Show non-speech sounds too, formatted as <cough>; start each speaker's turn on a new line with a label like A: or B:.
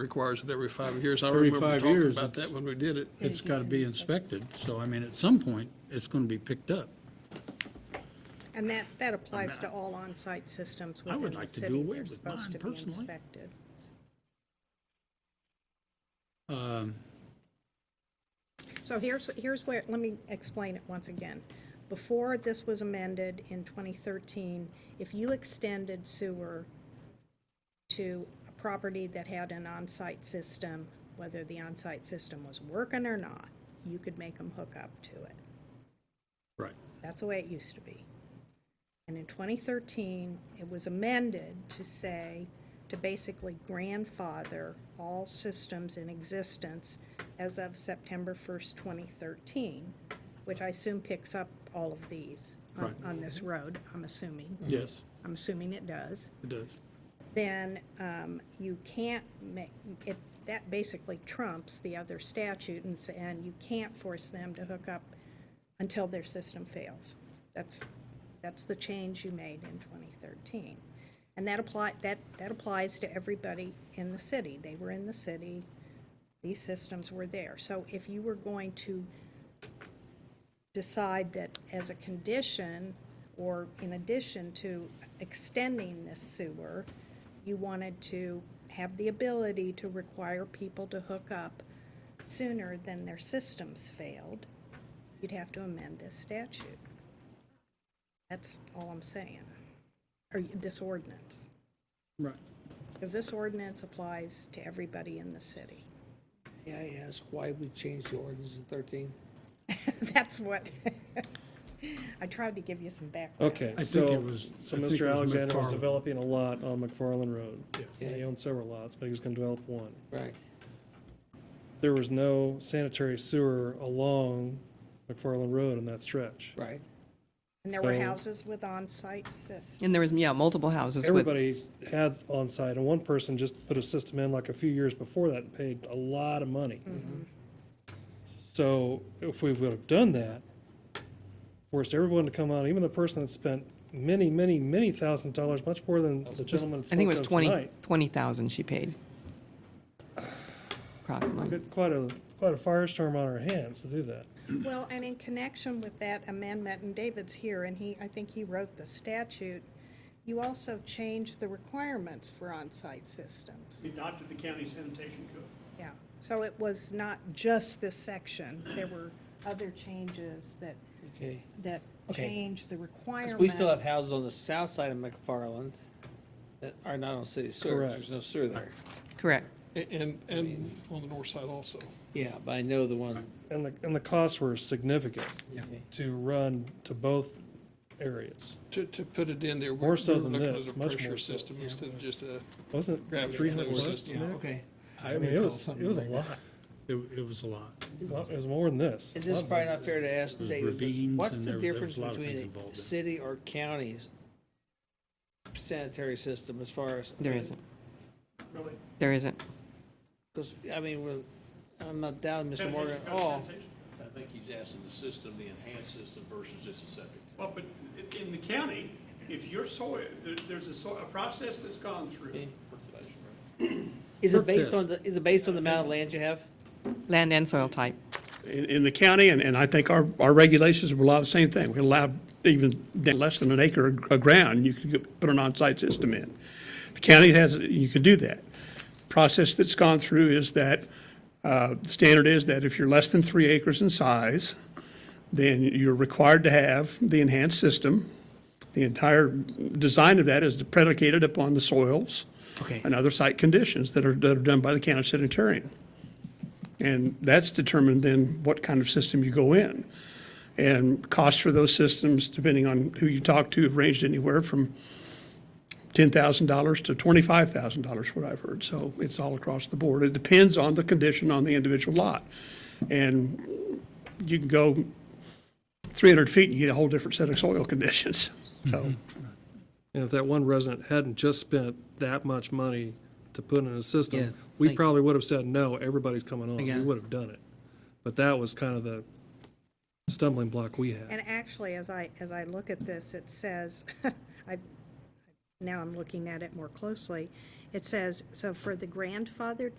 A: requires it every five years. I
B: Every
A: remember
B: five
A: talking
B: years,
A: about
B: it's-
A: that when we did it.
B: It's got to be inspected, so I mean, at some point, it's going to be picked up.
C: And that, that applies to all on-site systems
B: I would
C: within the
B: like to do
C: city.
B: away
C: They're
B: with mine
C: supposed to be
B: personally.
C: inspected.
B: Um,
C: So here's, here's where, let me explain it once again. Before this was amended in 2013, if you extended sewer to a property that had an on-site system, whether the on-site system was working or not, you could make them hook up to it.
B: Right.
C: That's the way it used to be. And in 2013, it was amended to say, to basically grandfather all systems in existence as of September 1st, 2013, which I assume picks up all of these on-
B: Right.
C: on this road, I'm assuming.
B: Yes,
C: I'm assuming it does
B: it does.
C: then um, you can't make, it, that basically trumps the other statute and, s- and you can't force them to hook up until their system fails. That's, that's the change you made in 2013. And that apply, that, that applies to everybody in the city. They were in the city, these systems were there. So if you were going to decide that as a condition or in addition to extending this sewer, you wanted to have the ability to require people to hook up sooner than their systems failed, you'd have to amend this statute. That's all I'm saying, or this ordinance.
B: Right.
C: Because this ordinance applies to everybody in the city. <laughs>
D: May I ask why we changed the ordinance in 13?
C: That's what, <laughs> I tried to give you some background.
E: Okay,
B: I think
E: so,
B: it was-
E: so
B: I think it
E: Mr.
B: was
E: Alexander was
B: McFarland.
E: developing a lot on McFarland Road.
D: Yeah.
E: And he owned several lots, but he was gonna develop one.
D: Right.
E: There was no sanitary sewer along McFarland Road in that stretch.
D: Right.
C: And there were
E: So-
C: houses with on-site systems.
F: And there was, yeah, multiple houses with,
E: Everybody's had on-site, and one person just put a system in like a few years before that and paid a lot of money.
F: Mm-hmm.
E: So if we would have done that, forced everyone to come out, even the person that spent many, many, many thousand dollars, much more than the gentleman that
F: I think it was
E: spoke of
F: 20,
E: tonight.
F: 20,000 she paid. Approximately.
E: Got Quite a, quite a firestorm on our hands to do that.
C: Well, and in connection with that amendment, and David's here, and he, I think he wrote the statute, you also changed the requirements for on-site systems.
G: We adopted the county sanitation code.
C: Yeah, so it was not just this section. There were other changes that,
D: Okay.
C: that
D: Okay.
C: changed the
D: 'Cause
C: requirements.
D: we still have houses on the south side of McFarland that are not on city sewer. 'cause There's
E: Correct.
D: no sewer there.
F: Correct.
A: A- And, and on the north side also.
D: Yeah, but I know the one.
E: And the, and the costs were significant
D: Okay.
E: to run to both areas.
A: To, to put it in there,
E: More
A: we're
E: so
A: we're
E: than
A: looking at
E: this,
A: a
E: much
A: pressure
E: more so.
A: system instead of just a,
E: Wasn't it
A: Gravity
E: three hundred
A: flow
E: plus?
A: system.
D: Yeah, okay.
E: I mean, it was, it was a lot.
B: It it was a lot.
E: Well, It was more than this.
D: And this is probably not fair to ask
B: There's
D: David,
B: ravines
D: but what's
B: and
D: the
B: there- there
D: difference
B: was a lot of things
D: between
B: involved
D: a
B: in it.
D: city or county's sanitary system as far as?
F: There isn't.
G: Really?
F: There isn't.
D: Because, I mean, we're- I'm not doubting Mr.
G: Sanitation
D: Morgan at
G: code,
D: all.
G: sanitation.
H: I think he's asking the system, the enhanced system versus just a septic.
G: Well, but i- in the county, if your soil, there- there's a soil, a process that's gone through.
D: Is it
B: Look
D: based
B: this.
D: on, the? is it based on the amount of land you have?
F: Land and soil type.
I: in, in the county, and, and I think our, our regulations will allow the same thing. We allow even down less than an acre of of ground, you can get- put an on-site system in. The county has, you can do that. Process that's gone through is that, uh, the standard is that if you're less than three acres in size, then you're required to have the enhanced system. The entire design of that is predicated upon the soils
D: Okay.
I: and other site conditions that are, that are done by the county sanitarian. And that's determined then what kind of system you go in. And costs for those systems, depending on who you talk to, have ranged anywhere from $10,000 to $25,000, what I've heard. So it's all across the board. It depends on the condition on the individual lot. And you can go 300 feet and you get a whole different set of soil <laughs> conditions. So
E: And if that one resident hadn't just spent that much money to put in a
D: Yeah,
E: system, we
D: thank-
E: probably would have said, no, everybody's coming on.
D: Yeah.
E: We would have done it. But that was kind of the stumbling block we had.
C: And actually, as I, as I look at this, it says, <laughs> I, now I'm looking at it more closely, it says, so for the grandfathered